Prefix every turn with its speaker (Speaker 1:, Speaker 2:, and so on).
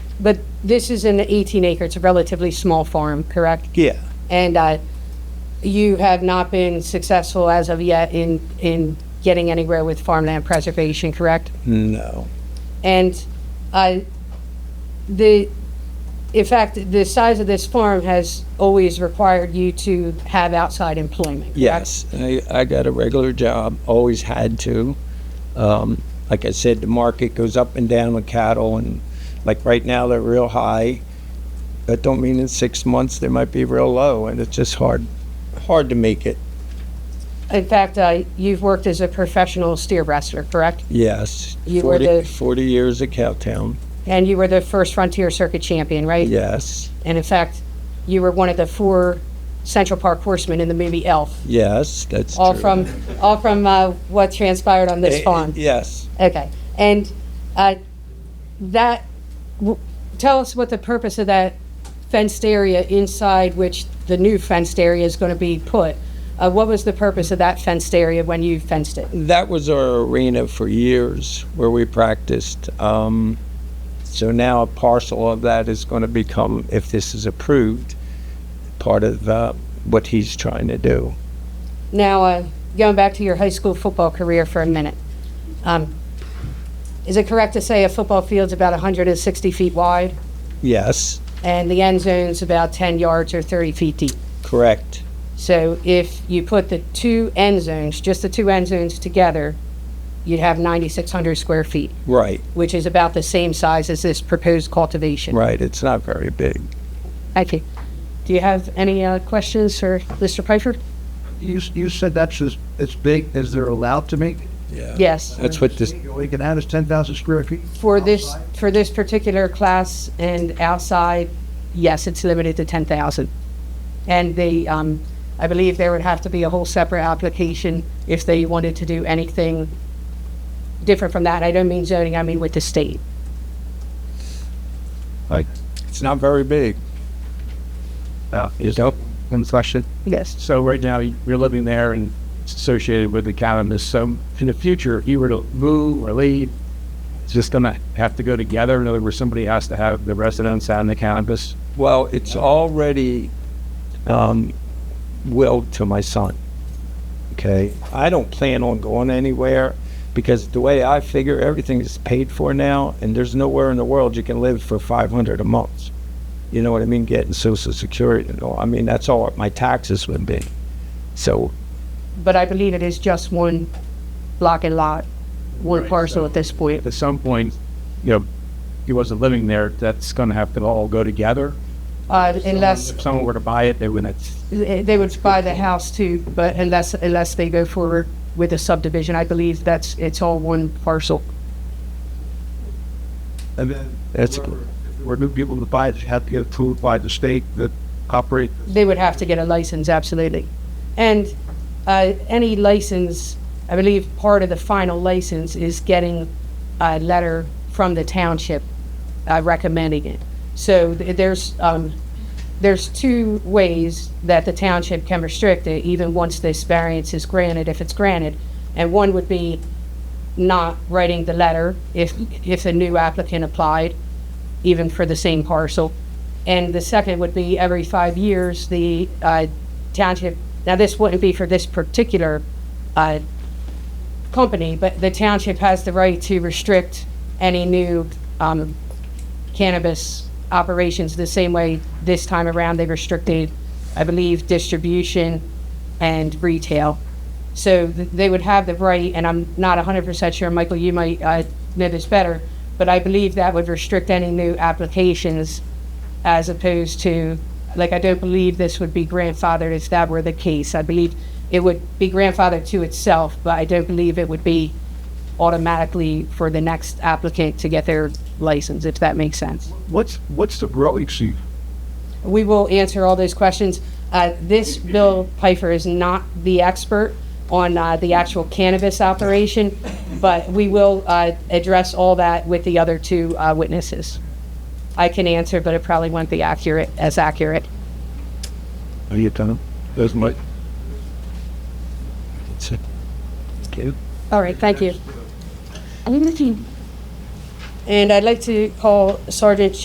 Speaker 1: But this is an 18 acre, it's a relatively small farm, correct?
Speaker 2: Yeah.
Speaker 1: And uh, you have not been successful as of yet in, in getting anywhere with farmland preservation, correct?
Speaker 2: No.
Speaker 1: And uh, the, in fact, the size of this farm has always required you to have outside employment, correct?
Speaker 2: Yes. I, I got a regular job, always had to. Um, like I said, the market goes up and down with cattle, and like right now they're real high. That don't mean in six months they might be real low, and it's just hard, hard to make it.
Speaker 1: In fact, uh, you've worked as a professional steer wrestler, correct?
Speaker 2: Yes.
Speaker 1: You were
Speaker 2: 40,
Speaker 1: the-
Speaker 2: 40 years at Cowtown.
Speaker 1: And you were the first Frontier Circuit champion, right?
Speaker 2: Yes.
Speaker 1: And in fact, you were one of the four Central Park horsemen in the movie Elf.
Speaker 2: Yes, that's
Speaker 1: All
Speaker 2: true.
Speaker 1: from, all from uh, what transpired on
Speaker 2: Eh,
Speaker 1: this
Speaker 2: eh,
Speaker 1: farm.
Speaker 2: Yes.
Speaker 1: Okay. And uh, that, w- tell us what the purpose of that fenced area inside which the new fenced area is going to be put. Uh, What was the purpose of that fenced area when you fenced it?
Speaker 2: that was our arena for years where we practiced. Um, so now a parcel of that is going to become, if this is approved, part of uh, what he's trying to do.
Speaker 1: Now, uh, going back to your high school football career for a minute, um, is it correct to say a football field's about 160 feet wide
Speaker 2: Yes,
Speaker 1: and the end zone's about 10 yards or 30 feet deep?
Speaker 2: correct.
Speaker 1: So if you put the two end zones, just the two end zones together, you'd have 9,600 square feet,
Speaker 2: Right,
Speaker 1: which is about the same size as this proposed cultivation.
Speaker 2: right. It's not very big.
Speaker 1: Thank you. Do you have any uh, questions for Mr. Pfeiffer?
Speaker 3: You, you said that's as, as big as they're allowed to make?
Speaker 2: Yeah.
Speaker 1: Yes.
Speaker 2: That's what this.
Speaker 3: All we can add is 10,000 square feet?
Speaker 1: For this,
Speaker 3: Outside?
Speaker 1: for this particular class and outside, yes, it's limited to 10,000. And they, um, I believe there would have to be a whole separate application if they wanted to do anything different from that. I don't mean zoning, I mean with the state.
Speaker 2: It's not very big.
Speaker 4: Just one question.
Speaker 1: Yes.
Speaker 4: So right now, you're living there and it's associated with the cannabis. So in the future, if you were to move or leave, it's just going to have to go together. In other words, somebody has to have the residence and the cannabis.
Speaker 2: Well, it's already um, willed to my son. Okay. I don't plan on going anywhere because the way I figure everything is paid for now, and there's nowhere in the world you can live for 500 a month. You know what I mean? Getting Social Security and all. I mean, that's all my taxes would be. So,
Speaker 1: But I believe it is just one block and lot, one parcel at this point.
Speaker 4: At some point, you know, if he wasn't living there, that's going to have to all go together.
Speaker 1: Uh, Unless,
Speaker 4: If someone were to buy it, they wouldn't.
Speaker 1: they would buy the house too, but unless, unless they go forward with a subdivision, I believe that's, it's all one parcel.
Speaker 3: And then,
Speaker 2: That's-
Speaker 3: whoever- if there were new people to buy it, you have to get approved by the state that operate.
Speaker 1: They would have to get a license, absolutely. And uh, any license, I believe part of the final license is getting a letter from the township uh, recommending it. So th- there's, um, there's two ways that the township can restrict it, even once this variance is granted, if it's granted. And one would be not writing the letter if, if a new applicant applied, even for the same parcel. And the second would be every five years, the uh, township, now this wouldn't be for this particular uh, company, but the township has the right to restrict any new um, cannabis operations the same way this time around they restricted, I believe, distribution and retail. So th- they would have the right, and I'm not 100% sure, Michael, you might uh, know this better, but I believe that would restrict any new applications as opposed to, like, I don't believe this would be grandfathered if that were the case. I believe it would be grandfathered to itself, but I don't believe it would be automatically for the next applicant to get their license, if that makes sense.
Speaker 3: What's, what's the growing season?
Speaker 1: We will answer all those questions. Uh, This, Bill Pfeiffer is not the expert on uh, the actual cannabis operation, but we will uh, address all that with the other two uh, witnesses. I can answer, but it probably won't be accurate, as accurate.
Speaker 3: Are you telling? That's my.
Speaker 2: it's a,
Speaker 1: All right, thank you. And I'd like to call Sergeant